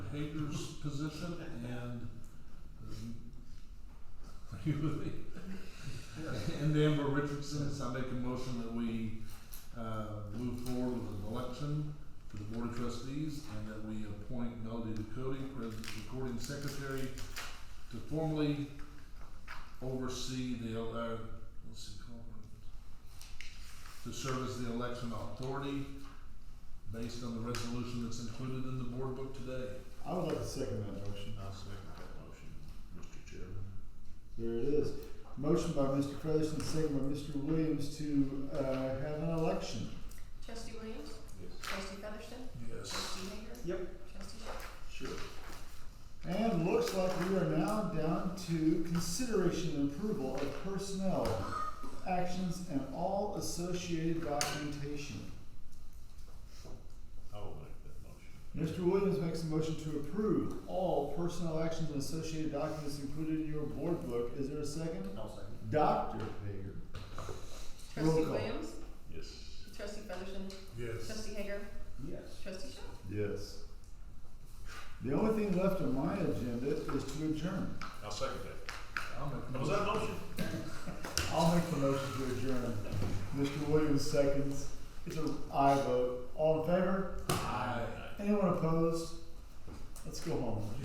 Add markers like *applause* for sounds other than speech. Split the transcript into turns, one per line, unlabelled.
Hager's position and, um, are you with me? *laughs* And Amber Richardson, so I make a motion that we, uh, move forward with an election for the Board of Trustees and that we appoint Melody Ducote, President Recording Secretary, to formally oversee the, el- uh, let's see, call her, to serve as the election authority based on the resolution that's included in the board book today.
I would like to second that motion.
I'll second that motion, Mr. Chairman.
There it is. Motion by Mr. Featherston, second by Mr. Williams to, uh, have an election.
Trustee Williams?
Yes.
Trustee Featherston?
Yes.
Trustee Hager?
Yep.
Trustee Shaw?
Sure.
And looks like we are now down to consideration and approval of personnel, actions, and all associated documentation.
I will make that motion.
Mr. Williams makes a motion to approve all personnel actions and associated documents included in your board book. Is there a second?
I'll second.
Dr. Hager. Roll
Trustee
call.
Williams?
Yes.
Trustee Featherston?
Yes.
Trustee Hager?
Yes.
Trustee Shaw?
Yes. The only thing left on my agenda is to adjourn.
I'll second that.
I'll make a
Was
motion.
that a motion?
I'll make the motion to adjourn. Mr. Williams seconds. It's a aye vote. All in favor?
Aye.
Anyone opposed? Let's go home.